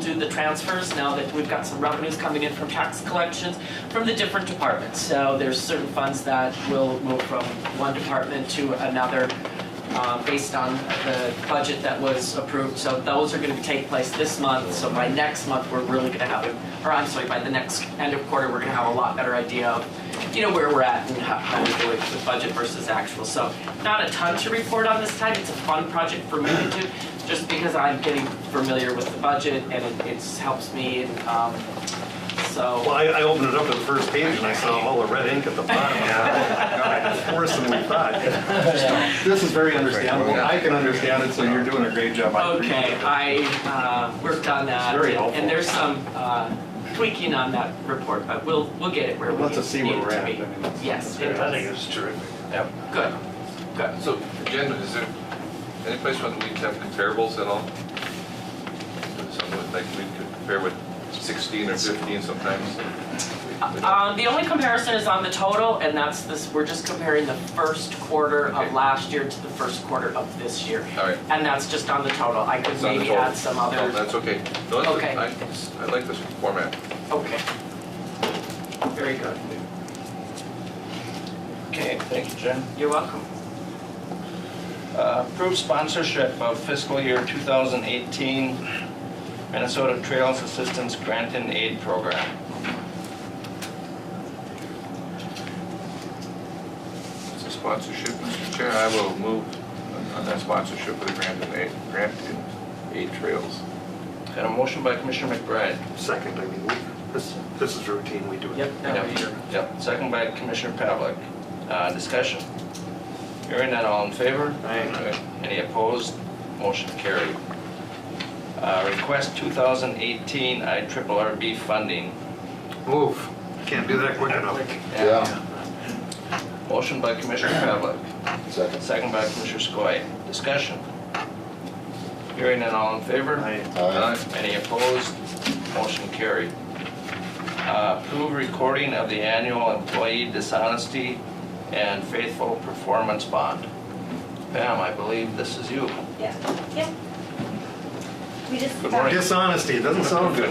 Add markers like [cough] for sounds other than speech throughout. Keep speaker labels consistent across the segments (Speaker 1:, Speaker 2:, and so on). Speaker 1: do the transfers now that we've got some revenues coming in from tax collections from the different departments. So there's certain funds that will move from one department to another uh, based on the budget that was approved. So those are going to take place this month. So by next month, we're really going to have, a- or I'm sorry, by the next end of quarter, we're going to have a lot better idea of, you know, where we're at and how- how we're doing with budget versus actual. So not a ton to report on this time. It's a fun project for me to do, just because I'm getting familiar with the budget and it- it helps me. and um,
Speaker 2: Well,
Speaker 1: So,
Speaker 2: I, I opened it up to the first page and I saw all the red ink at the bottom. Yeah, oh my [laughs] God, Worse than we [laughs] thought. This is very understandable. I can understand it, so you're doing a great job. I appreciate
Speaker 1: okay,
Speaker 2: it.
Speaker 1: I uh, worked on that.
Speaker 2: It's very
Speaker 1: and-
Speaker 2: helpful.
Speaker 1: And there's some uh, tweaking on that report, but we'll, we'll get it where
Speaker 2: It
Speaker 1: we need
Speaker 2: lets
Speaker 1: need it
Speaker 2: us
Speaker 1: to
Speaker 2: see
Speaker 1: be.
Speaker 2: where we're at. I mean, it's-
Speaker 1: Yes, it
Speaker 2: Yeah, I
Speaker 1: does.
Speaker 2: think it's terrific.
Speaker 3: Yep.
Speaker 1: Good, good.
Speaker 3: So, again, is there any place where we have comparables at all? Something with, like, we could compare with 16 or 15 sometimes?
Speaker 1: Um, the only comparison is on the total, and that's this, we're just comparing the first quarter of
Speaker 3: Okay.
Speaker 1: last year to the first quarter of this year.
Speaker 3: All right.
Speaker 1: And that's just on the total, I could
Speaker 3: It's on the
Speaker 1: maybe
Speaker 3: total.
Speaker 1: add some
Speaker 3: No,
Speaker 1: other,
Speaker 3: that's okay. No, that's-
Speaker 1: Okay.
Speaker 3: I it's- I like this format.
Speaker 1: okay. Very good,
Speaker 4: Okay, thank you, Jen.
Speaker 1: you're welcome.
Speaker 4: Uh, Approved sponsorship of fiscal year 2018 Minnesota Trails Assistance Grant and Aid Program.
Speaker 3: It's a sponsorship, Mr. Chair, I will move on- on that sponsorship of the grant and aid, grant and aid trails.
Speaker 4: Got a motion by Commissioner McBride.
Speaker 2: Second, I mean, we, this, this is routine, we do it.
Speaker 1: Yep, that
Speaker 4: Yep. Yep, second by Commissioner Pavlik. Uh, Discussion. Hearing none, all in favor?
Speaker 2: Aye.
Speaker 4: Any opposed? Motion carried. Uh, Request 2018 IRRB funding.
Speaker 2: Move. Can't do that quick enough.
Speaker 5: Yeah,
Speaker 4: Motion by Commissioner Pavlik.
Speaker 5: second.
Speaker 4: Second by Commissioner Skoye. Discussion. Hearing none, all in favor?
Speaker 2: Aye.
Speaker 5: Aye.
Speaker 4: Any opposed? Motion carried. Uh, Approve recording of the annual employee dishonesty and faithful performance bond. Pam, I believe this is you.
Speaker 6: Yeah, yeah. We just.
Speaker 4: Good morning.
Speaker 2: Dishonesty, doesn't sound good.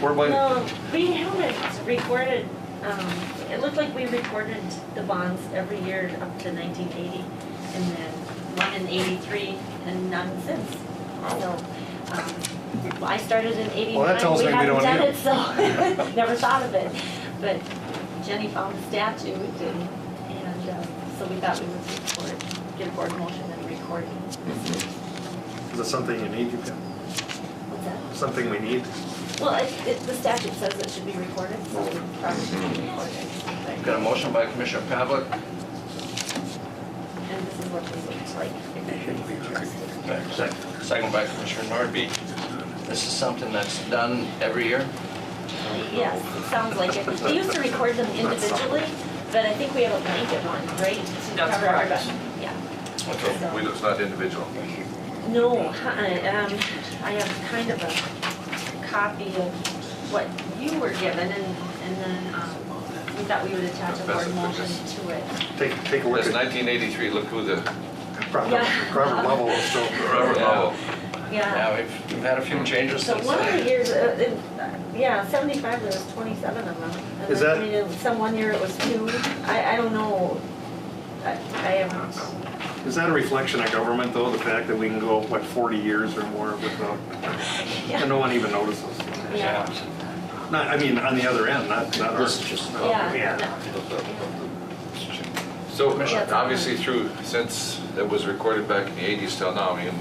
Speaker 4: We're like,
Speaker 6: Um, we haven't recorded, um, it looked like we recorded the bonds every year up to nineteen eighty, and then one in eighty-three and none since. So, um, well, I started in
Speaker 2: Well, that
Speaker 6: eighty-nine,
Speaker 2: tells
Speaker 6: we
Speaker 2: me we
Speaker 6: haven't
Speaker 2: don't
Speaker 6: done
Speaker 2: need
Speaker 6: it,
Speaker 2: [laughs]
Speaker 6: so, [laughs] never thought of it. But Jenny found the statute and, and, uh, so we thought we would record, get a board motion and record.
Speaker 2: Is it something you need, you can-
Speaker 6: What's that?
Speaker 2: something we need?
Speaker 6: Well, it, it, the statute says it should be recorded, so it probably should be recorded.
Speaker 4: got a motion by Commissioner Pavlik.
Speaker 6: And this is what it looks like.
Speaker 4: Second by Commissioner Nordby. This is something that's done every year.
Speaker 6: Yes, it sounds like it. They used to record them individually, but I think we have a blanket one, right? to
Speaker 1: That's
Speaker 6: cover
Speaker 1: correct.
Speaker 6: everybody. Yeah.
Speaker 3: So we- It's not individual.
Speaker 6: No, uh-uh, um, I have kind of a copy of what you were given and, and then, um, we thought we would attach a board motion to it.
Speaker 2: Take, take a look
Speaker 3: That's
Speaker 2: at
Speaker 3: 1983, look who the,
Speaker 2: Robert,
Speaker 6: Yeah.
Speaker 2: Robert Lovell is still.
Speaker 3: Robert
Speaker 4: Yeah.
Speaker 3: Lovell.
Speaker 6: Yeah.
Speaker 4: Now, we've we've had a few changes
Speaker 6: So
Speaker 4: since
Speaker 6: one of the
Speaker 4: then.
Speaker 6: years, uh, in- yeah, seventy-five, there was twenty-seven of them. And
Speaker 2: Is
Speaker 6: then,
Speaker 2: that-
Speaker 6: I mean, in some one year it was two, I, I don't know, I, I haven't,
Speaker 2: Is that a reflection of government, though, the fact that we can go, what, 40 years or more without, and no one even notices?
Speaker 6: yeah,
Speaker 2: Not, I mean, on the other end, not, not ours.
Speaker 6: yeah.
Speaker 2: Yeah.
Speaker 3: So
Speaker 6: Commissioner.
Speaker 3: obviously through, since that was recorded back in the 80s till now, I mean,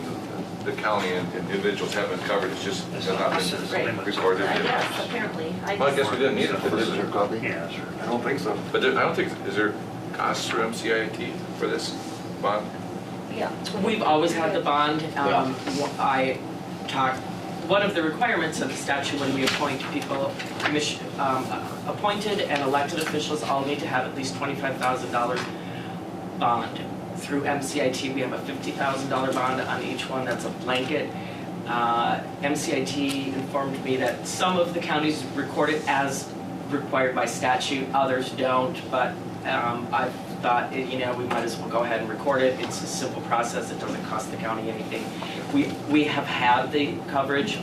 Speaker 3: the county and individuals haven't covered, it's just it's not been
Speaker 6: Right.
Speaker 3: recorded.
Speaker 6: I
Speaker 3: yet.
Speaker 6: guess, apparently, I
Speaker 3: Well, I guess
Speaker 6: just,
Speaker 3: we didn't need it, did we?
Speaker 2: Yeah, sure. I don't think so.
Speaker 3: But there- I don't think, is there costs for MCIT for this bond?
Speaker 6: yeah.
Speaker 1: We've always had the bond. Um, wh- I talk, one of the requirements of the statute when we appoint people, commission, um, appointed and elected officials all need to have at least twenty-five thousand dollars bond. Through MCIT, we have a fifty thousand dollar bond on each one, that's a blanket. Uh, MCIT informed me that some of the counties record it as required by statute, others don't, but um, I've thought, eh, you know, we might as well go ahead and record it. It's a simple process. It doesn't cost the county anything. We, we have had the coverage